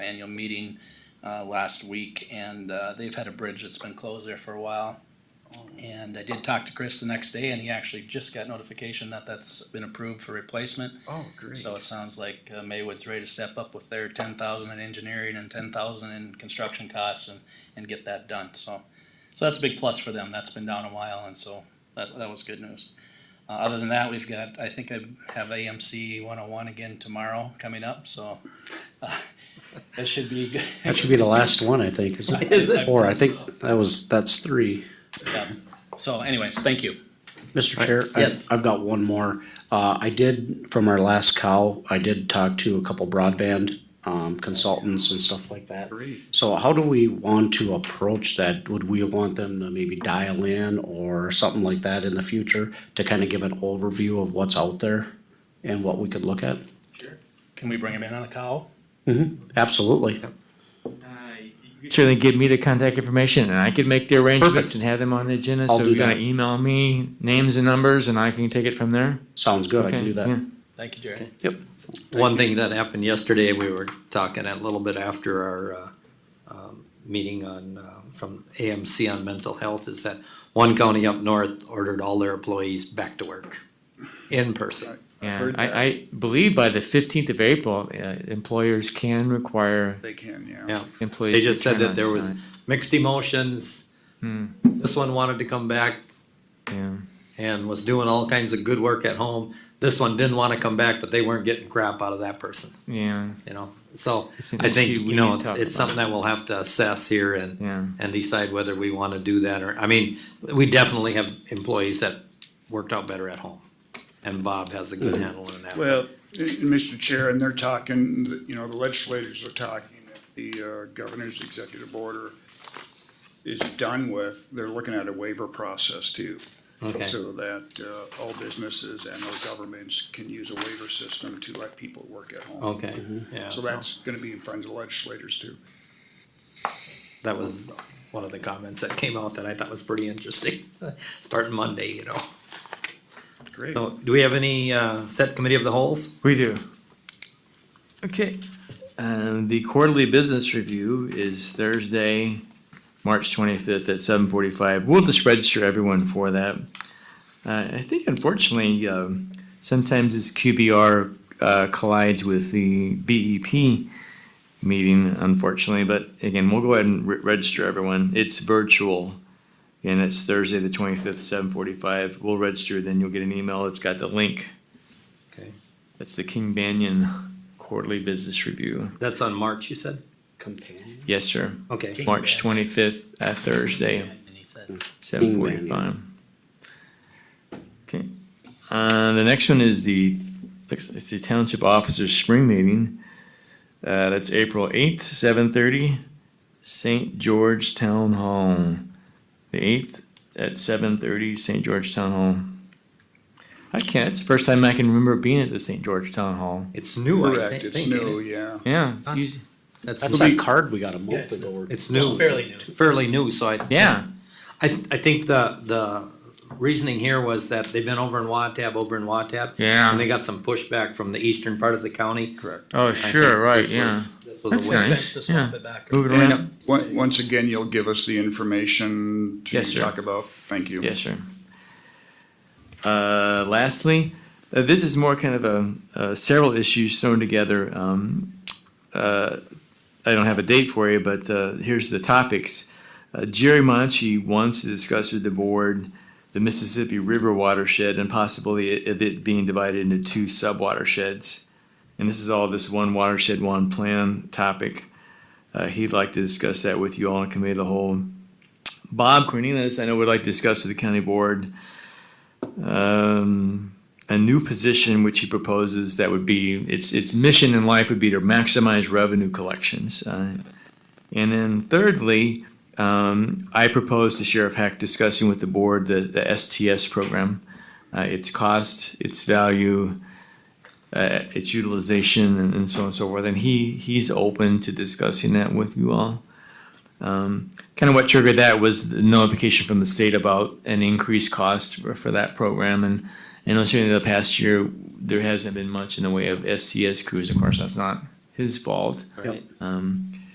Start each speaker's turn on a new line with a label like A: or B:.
A: annual meeting uh, last week, and uh, they've had a bridge that's been closed there for a while. And I did talk to Chris the next day, and he actually just got notification that that's been approved for replacement.
B: Oh, great.
A: So it sounds like uh, Maywood's ready to step up with their ten thousand in engineering and ten thousand in construction costs and, and get that done, so. So that's a big plus for them, that's been down a while, and so that, that was good news. Uh, other than that, we've got, I think I have AMC one oh one again tomorrow coming up, so. uh, That should be good.
C: That should be the last one, I think. Is
A: Is it?
C: it? Or I think that was, that's three.
A: Yeah. So anyways, thank you.
C: Mr. Chair, I-
A: Yes.
C: I've got one more. Uh, I did, from our last cow, I did talk to a couple broadband um, consultants and stuff like that.
B: Great.
C: So how do we want to approach that? Would we want them to maybe dial in or something like that in the future to kind of give an overview of what's out there and what we could look at?
A: Can we bring him in on a cow?
C: Absolutely.
D: Certainly give me the contact information and I could make the arrangements
C: Perfect.
D: and have them on the agenda.
C: I'll
D: So
C: do
D: you're gonna
C: that.
D: email me names and numbers and I can take it from there?
C: Sounds good. I can
D: Okay,
C: do
D: yeah.
C: that.
A: Thank you, Jerry.
C: Yep.
B: One thing that happened yesterday, we were talking a little bit after our uh, um, meeting on, uh, from AMC on mental health, is that one county up north ordered all their employees back to work in person.
D: Yeah,
E: heard that.
D: I, I believe by the fifteenth of April, uh, employers can require
E: They can, yeah.
B: Yeah,
D: employees.
B: they
D: to
B: just said
D: turn
B: that
D: on
B: there was
D: site. Hmm.
B: mixed emotions. This one wanted to come back
D: Yeah,
B: and was doing all kinds of good work at home. This one didn't want to come back, but they weren't getting crap out of that person.
D: yeah,
B: you know, so
D: It's an
B: I think,
D: issue we
B: you know,
D: need to
B: it's-
D: talk
B: it's
D: about.
B: something that we'll have to assess here and,
D: Yeah.
B: and decide whether we wanna do that or, I mean, we definitely have employees that worked out better at home. And Bob has a good
D: Mm-hmm.
B: handle on that.
E: Well, and- and Mr. Chair, and they're talking, you know, the legislators are talking, that the uh, governor's executive order is done with, they're looking at a waiver process too.
B: Okay.
E: So that uh, all businesses and all governments can use a waiver system to let people work at home.
B: Okay,
D: Mm-hmm.
B: yeah,
E: So
B: so
E: that's gonna be in front of the legislators too.
B: that was one of the comments that came out that I thought was pretty interesting, starting Monday, you know.
E: Great.
B: So, do we have any, uh, set committee of the holes?
F: We do. Okay, um, the quarterly business review is Thursday, March twenty-fifth at seven forty-five. We'll just register everyone for that. Uh, I think unfortunately, um, sometimes this QBR, uh, collides with the BEP meeting unfortunately, but again, we'll go ahead and re- register everyone. It's virtual. And it's Thursday, the twenty-fifth, seven forty-five. We'll register, then you'll get an email. It's got the link.
B: Okay,
F: That's the King Banyan Quarterly Business Review.
B: that's on March, you said?
C: Companion.
F: Yes, sir.
B: Okay,
F: March twenty-fifth, uh, Thursday,
A: And he said,
F: seven forty-five. Okay, uh, the next one is the, looks- it's the Township Officers Spring Meeting. Uh, that's April eighth, seven thirty, St. George Town Hall. The eighth at seven thirty, St. George Town Hall. I can't, it's the first time I can remember being at the St. George Town Hall.
B: it's new, I
E: Correct,
B: thi-
E: it's
B: think, ain't
E: new,
B: it?
E: yeah.
F: Yeah, it's usually.
B: That's,
C: That's
B: new.
C: that card we got a
A: it's-
C: month ago. or-
B: it's new.
A: Fairly new.
B: Fairly new, so I.
F: Yeah,
B: I, I think the, the reasoning here was that they've been over in Watab, over in Watab.
D: Yeah.
B: And they got some pushback from the eastern part of the county. Correct.
D: oh, sure, right, yeah.
B: This was
F: That's
B: a win.
D: nice.
A: sense to swap
D: Yeah.
A: it back.
F: moving around.
E: Once, once again, you'll give us the information to
F: Yes, sir.
E: talk about. Thank you.
F: Yes, sir. Uh, lastly, uh, this is more kind of a, uh, several issues thrown together. Um, uh, I don't have a date for you, but, uh, here's the topics. Uh, Jerry Monchi wants to discuss with the board the Mississippi River watershed and possibly i- of it being divided into two sub-watersheds. And this is all this one watershed, one plan topic. Uh, he'd like to discuss that with you all in committee of the whole. Bob Cornelius, I know would like to discuss with the county board um, a new position which he proposes that would be its its mission in life would be to maximize revenue collections. Uh, and then thirdly, um, I propose to Sheriff Hack discussing with the board the, the STS program, uh, its cost, its value, uh, its utilization, and, and so on and so forth. And he he's open to discussing that with you all kind of what triggered that was the notification from the state about an increased cost for, for that program. And and certainly the past year, there hasn't been much in the way of STS crews. Of course, that's not
C: his fault.
F: Yep.
C: Um,